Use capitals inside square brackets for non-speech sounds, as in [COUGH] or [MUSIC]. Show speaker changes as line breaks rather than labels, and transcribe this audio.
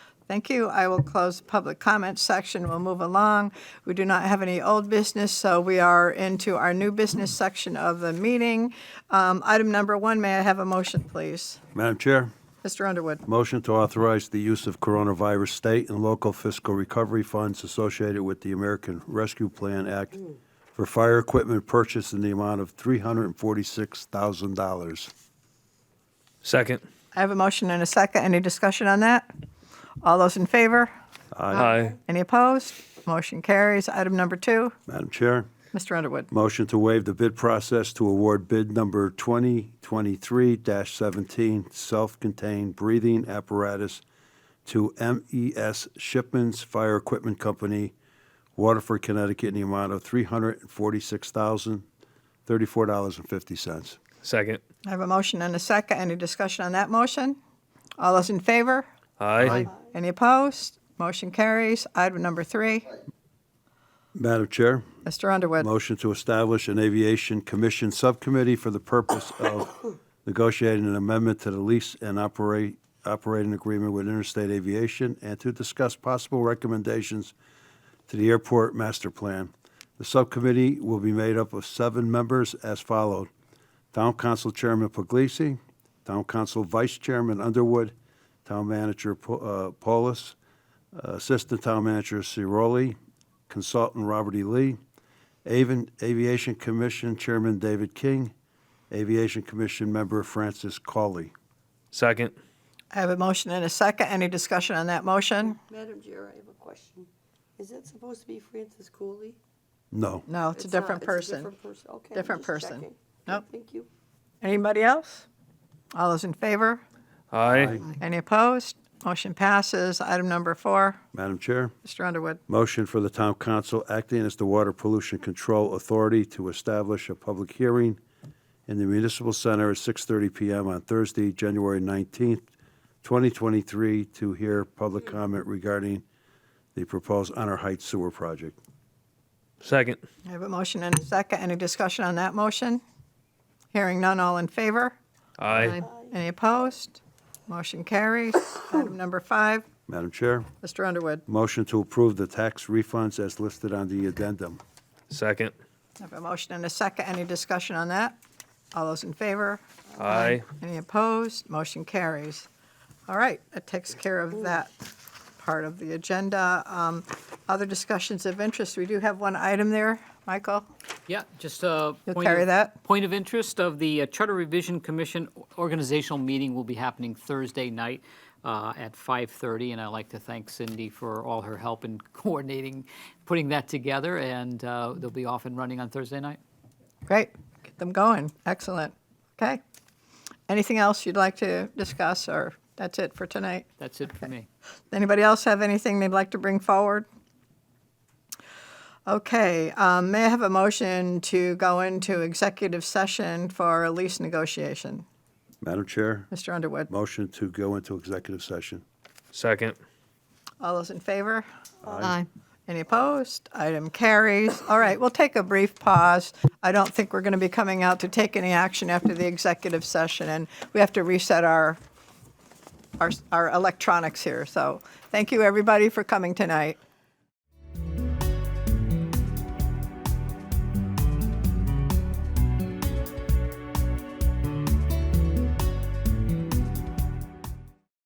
Thank you. I will close the public comment section. We'll move along. We do not have any old business, so we are into our new business section of the meeting. Um, Item number one, may I have a motion, please?
Madam Chair,
Mr. Underwood?
motion to authorize the use of coronavirus state and local fiscal recovery funds associated with the American Rescue Plan Act for fire equipment purchase in the amount of $346,000.
Second.
I have a motion and a second. Any discussion on that? All those in favor?
Aye.
Any opposed? Motion carries. Item number two,
Madam Chair,
Mr. Underwood.
motion to waive the bid process to award bid number 2023-17, self-contained breathing apparatus to MES Shipments Fire Equipment Company, Waterford, Connecticut, in the amount of $346,034.50.
Second.
I have a motion and a second. Any discussion on that motion? All those in favor?
Aye.
Any opposed? Motion carries. Item number three,
Madam Chair,
Mr. Underwood.
motion to establish an Aviation Commission Subcommittee for the purpose of [COUGHS] negotiating an amendment to the lease and operate, operating agreement with Interstate Aviation and to discuss possible recommendations to the airport master plan. The subcommittee will be made up of seven members as followed. Town Council Chairman Puglisi, Town Council Vice Chairman Underwood, Town Manager Po- uh, Paulus, Assistant Town Manager Ciroli, Consultant Robert E. Lee, Avian- Aviation Commission Chairman David King, Aviation Commission Member Francis Cawley.
Second.
I have a motion and a second. Any discussion on that motion?
Madam Chair, I have a question. Is that supposed to be Francis Cooley?
No.
No, it's a
not-
different
it's
person.
different person, okay. I'm
Different
just
person.
checking. Okay,
Nope.
Thank you.
Anybody else? All those in favor?
Aye.
Any opposed? Motion passes. Item number four,
Madam Chair,
Mr. Underwood.
motion for the Town Council acting as the Water Pollution Control Authority to establish a public hearing in the Municipal Center at 6:30 PM on Thursday, January 19th, 2023, to hear public comment regarding the proposed Honor Heights Sewer Project.
Second.
I have a motion and a second. Any discussion on that motion? Hearing none, all in favor?
Aye.
Any opposed? Motion carries. Item number five,
Madam Chair,
Mr. Underwood.
motion to approve the tax refunds as listed on the addendum.
Second.
I have a motion and a second. Any discussion on that? All those in favor?
Aye.
Any opposed? Motion carries. All right, that takes care of that part of the agenda. Um, Other discussions of interest, we do have one item there, Michael.
Yeah, just a.
You'll
point
carry
of-
that?
Point of interest of the uh, Charter Revision Commission organizational meeting will be happening Thursday night uh, at 5:30, and I'd like to thank Cindy for all her help in [LAUGHS] coordinating, putting that together, and uh, they'll be off and running on Thursday night.
Great, get them going, excellent. Okay. Anything else you'd like to discuss, or that's it for tonight?
That's it for me.
Anybody else have anything they'd like to bring forward? Okay, um, may I have a motion to go into executive session for a lease negotiation?
Madam Chair,
Mr. Underwood,
motion to go into executive session.
Second.
all those in favor? Aye. Any opposed? Item carries. All right, we'll take a brief pause. I don't think we're going to be coming out to take any action after the executive session, and we have to reset our, our, our electronics here. So thank you, everybody, for coming tonight.